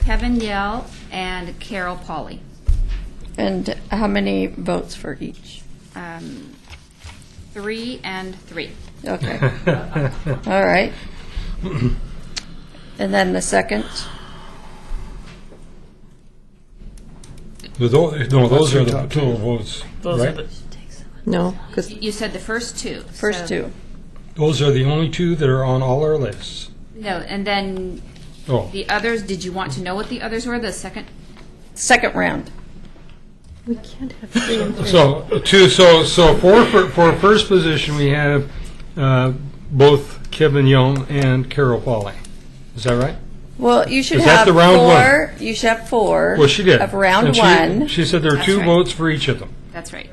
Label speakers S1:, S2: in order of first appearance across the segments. S1: Kevin Yell and Carol Pauley.
S2: And how many votes for each?
S1: Um, Three and three.
S2: Okay. All right. And then the second?
S3: The tho- No, those are the platoon votes,
S4: Those are
S3: right?
S4: the,
S5: No, because
S1: You said the first two.
S2: First
S1: so-
S2: two.
S3: Those are the only two that are on all our lists.
S1: No, and then
S3: Oh,
S1: the others, did you want to know what the others were, the second?
S2: Second round.
S5: we can't have three and three.
S3: so two, so, so for, for- for first position, we have uh, both Kevin Young and Carol Pauley. Is that right?
S2: Well, you should
S3: Is that
S2: have
S3: the round one?
S2: four, you should have four.
S3: Well, she did.
S2: Of round
S3: And she-
S2: one,
S3: She said there are
S1: That's
S3: two
S1: right.
S3: votes for each of them.
S1: That's right.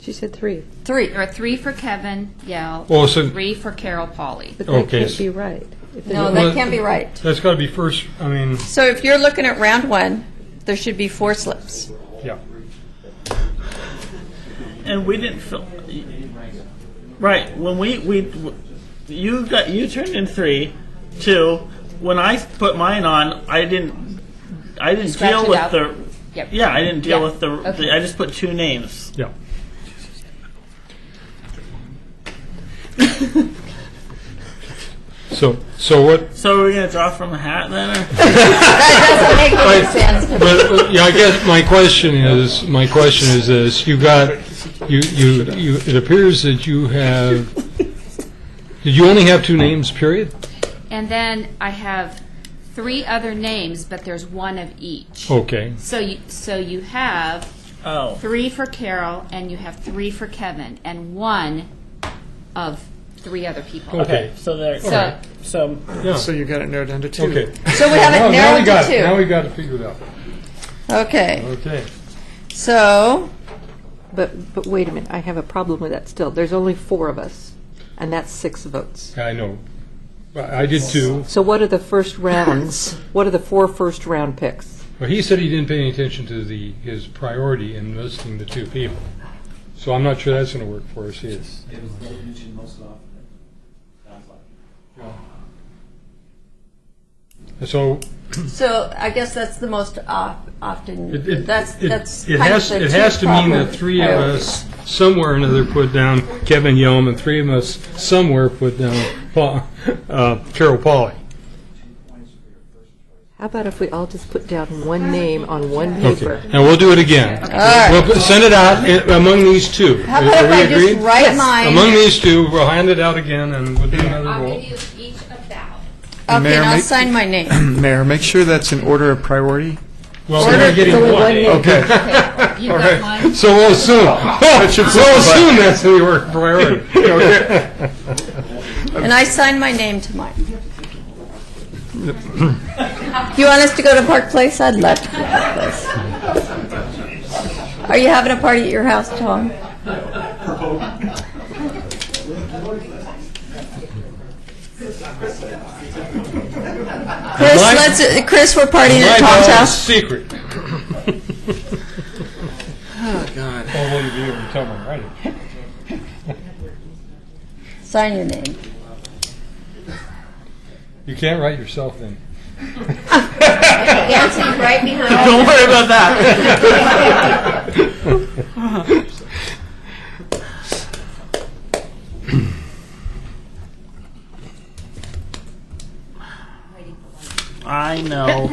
S5: She said three.
S2: three.
S1: There are three for Kevin Yell,
S3: Oh, so
S1: three for Carol Pauley.
S5: But
S3: Okay,
S5: that can't
S3: so-
S5: be right. If
S2: No,
S5: there's-
S3: Well-
S2: Oh, that can't be right.
S3: that's got to be first, I mean,
S2: So if you're looking at round one, there should be four slips.
S3: yeah.
S4: and we didn't fill. Right when we we you got you turned in three, two. When I put mine on, I didn't. I didn't
S1: Scratch
S4: deal
S1: it
S4: with
S1: out.
S4: the.
S1: Yep.
S4: Yeah, I didn't deal
S1: Yeah,
S4: with the,
S1: okay.
S4: the. I just put two names.
S3: Yeah. So, so what,
S4: So we're gonna draw from a hat then. Or?
S3: but, yeah, I guess my question is, my question is this, you got, you, you, you, it appears that you have, did you only have two names, period?
S1: And then I have three other names, but there's one of each.
S3: Okay,
S1: So you, so you have
S4: Oh.
S1: three for Carol and you have three for Kevin and one of three other people.
S3: okay,
S4: So there.
S1: So,
S4: So
S3: yeah,
S6: So you got it narrowed down to two.
S3: okay.
S2: So we have
S3: Oh, Now-
S2: it
S3: Now we
S2: narrowed
S3: got it, now
S2: to
S3: we got it figured out,
S2: two. Okay,
S3: okay.
S2: so,
S5: But, but wait a minute, I have a problem with that still. There's only four of us, and that's six votes.
S3: I know, But I did too,
S5: So what are the first rounds? What are the four first round picks?
S3: but he said he didn't pay any attention to the, his priority in listing the two people. So I'm not sure that's gonna work for us either.
S7: It was mentioned most often. Sounds like.
S3: So,
S2: so I guess that's the most of-
S3: It-
S2: often,
S3: it-
S2: that's,
S3: it-
S2: that's
S3: It
S2: kind of
S3: has,
S2: the
S3: it
S2: two
S3: has to mean
S2: proper
S3: that three of
S2: priorities.
S3: us somewhere or another put down Kevin Yom, and three of us somewhere put down Pa- uh, Carol Polly.
S5: How about if we all just put down one name on one
S3: Okay,
S5: paper?
S3: and we'll do it again.
S2: right.
S3: We'll put- send it out i- among these two.
S2: How
S3: Are-
S2: about
S3: are
S2: if
S3: we
S2: I just
S3: agreed?
S2: write mine?
S3: Among these two, we'll hand it out again, and we'll do another
S1: I'll
S3: roll.
S1: give you each a ballot.
S2: Okay,
S6: Mayor,
S2: and I'll
S6: make-
S2: sign my name.
S6: Mayor, make sure that's in order of priority.
S3: Well, we're only getting one.
S6: Okay.
S1: You got mine?
S3: So we'll assume, we'll assume that's the work priority.
S2: And I sign my name to mine. You want us to go to Park Place? I'd love to go to Park Place. Are you having a party at your house, Tom? Chris,
S3: My-
S2: let's, Chris, we're partying
S3: My
S2: at Tom's
S3: ballot's
S2: house.
S3: secret. Oh, God. All one of you are coming, right?
S2: Sign your name.
S3: You can't write yourself in.
S2: right behind.
S4: don't worry about that. I know.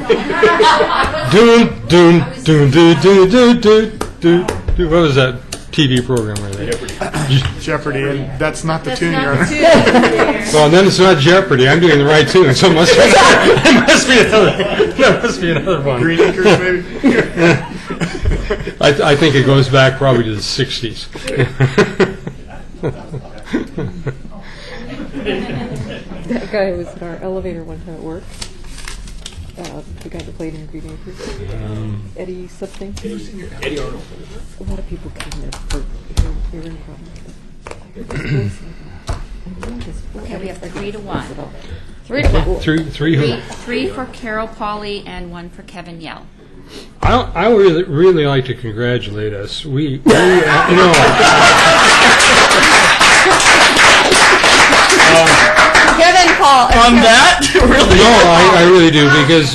S3: Doon, doon, doon, doon, doon, doon, doon, doon, doon. What was that TV program right there?
S6: Jeopardy, and that's not the tune you're on.
S3: Well, then it's not Jeopardy. I'm doing the right tune, so it must be, it must be another, there must be another one.
S6: Green Acres, maybe?
S3: I, I think it goes back probably to the 60s.
S5: That guy was in our elevator one time at work. Uh, the guy that played in Green Acres. Eddie something. Um, Eddie, Arnold. A lot of people came there for hearing problems. but I heard his voice, and I loved his voice.
S1: Okay, we have three to one.
S2: Three to one.
S3: Three, three
S1: Three,
S3: who?
S1: three for Carol Pauley and one for Kevin Yell.
S3: I, I would really, really like to congratulate us. We, we uh, you know,
S2: Kevin Paul.
S4: On that, really?
S3: no, I, I really do, because